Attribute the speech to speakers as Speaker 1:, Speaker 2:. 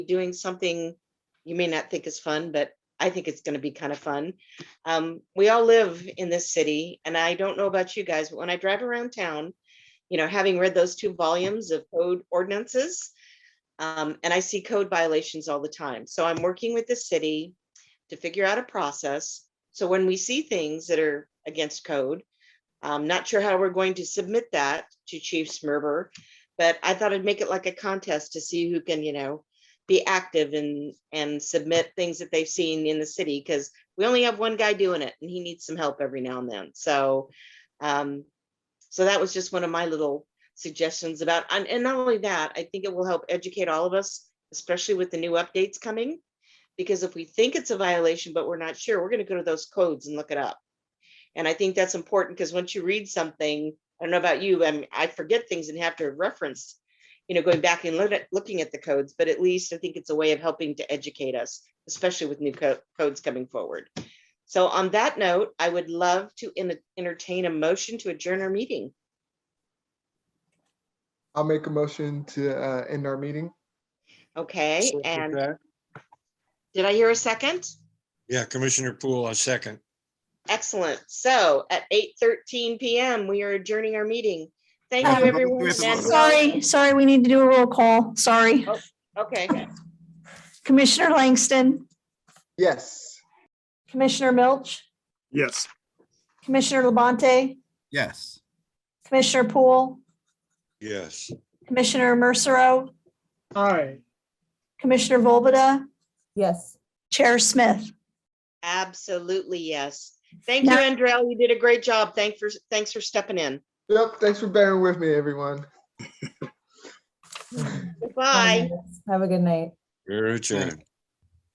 Speaker 1: doing something you may not think is fun, but I think it's going to be kind of fun. Um, we all live in this city, and I don't know about you guys, but when I drive around town, you know, having read those two volumes of code ordinances, um, and I see code violations all the time. So I'm working with the city to figure out a process. So when we see things that are against code, I'm not sure how we're going to submit that to Chief Smerber, but I thought I'd make it like a contest to see who can, you know, be active and and submit things that they've seen in the city because we only have one guy doing it and he needs some help every now and then. So um so that was just one of my little suggestions about and, and not only that, I think it will help educate all of us, especially with the new updates coming. Because if we think it's a violation, but we're not sure, we're gonna go to those codes and look it up. And I think that's important because once you read something, I don't know about you, I mean, I forget things and have to reference, you know, going back and look at- looking at the codes, but at least I think it's a way of helping to educate us, especially with new co- codes coming forward. So on that note, I would love to en- entertain a motion to adjourn our meeting.
Speaker 2: I'll make a motion to uh, end our meeting.
Speaker 1: Okay,
Speaker 3: Second
Speaker 1: and
Speaker 3: that.
Speaker 1: did I hear a second?
Speaker 3: Yeah, Commissioner Poole, a second.
Speaker 1: Excellent. So at eight thirteen PM, we are adjourning our meeting. Thank you,
Speaker 4: Um,
Speaker 1: everyone.
Speaker 3: Miss-
Speaker 1: Manuel-
Speaker 4: Sorry, sorry, we need to do a roll call. Sorry.
Speaker 1: Okay.
Speaker 4: Commissioner Langston,
Speaker 2: Yes.
Speaker 4: Commissioner Milch,
Speaker 5: Yes.
Speaker 4: Commissioner Labonte,
Speaker 5: Yes.
Speaker 4: Commissioner Poole,
Speaker 3: Yes.
Speaker 4: Commissioner Mercero,
Speaker 5: Hi.
Speaker 4: Commissioner Volbada,
Speaker 6: Yes.
Speaker 4: Chair Smith.
Speaker 1: Absolutely, yes. Thank you,
Speaker 4: Now-
Speaker 1: Andrell. You did a great job. Thanks for, thanks for stepping in.
Speaker 2: Yep. Thanks for bearing with me, everyone.
Speaker 1: Goodbye.
Speaker 6: Have a good night.
Speaker 3: Your turn.